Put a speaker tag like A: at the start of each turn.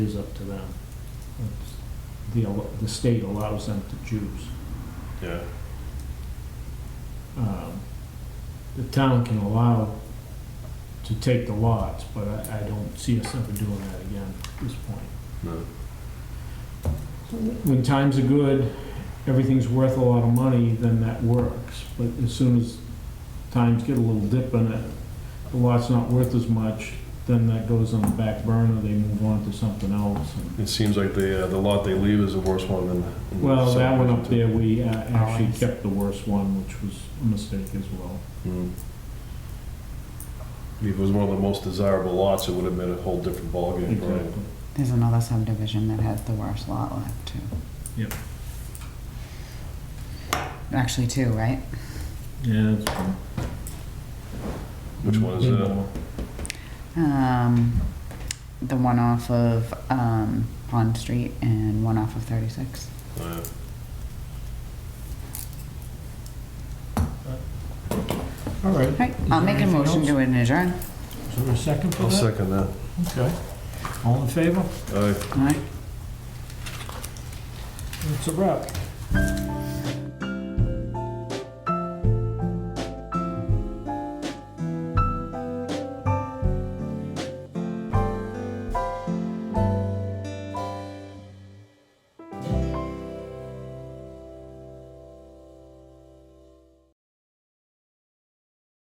A: is up to them. It's- The, al- the state allows them to choose.
B: Yeah,
A: Um, The town can allow to take the lots, but I, I don't see us ever doing that again at this point.
B: no,
A: When times are good, everything's worth a lot of money, then that works. But as soon as times get a little dip in it, the lot's not worth as much, then that goes on the back burner, they move on to something else. and-
B: it seems like the, uh, the lot they leave is the worst one than. than
A: Well, that one up there,
B: subdivision
A: we uh, actually
C: see.
A: kept the worst one, which was a mistake as well.
B: too. Mm. If it was one of the most desirable lots, it would have been a whole different ballgame, right?
A: Exactly.
C: There's another subdivision that has the worst lot left too.
A: Yep.
C: Actually, two, right?
A: Yeah, that's fine.
B: Which one is that?
C: Um, the one off of, um, Pond Street and one off of thirty-six.
B: Uh,
A: All right.
C: All right, I'll
A: Is there
C: make a
A: anything
C: motion to adjourn.
A: Is there a second for
B: I'll
A: that?
B: second that.
A: Okay. All in favor?
B: Aye.
C: All right.
A: That's a wrap.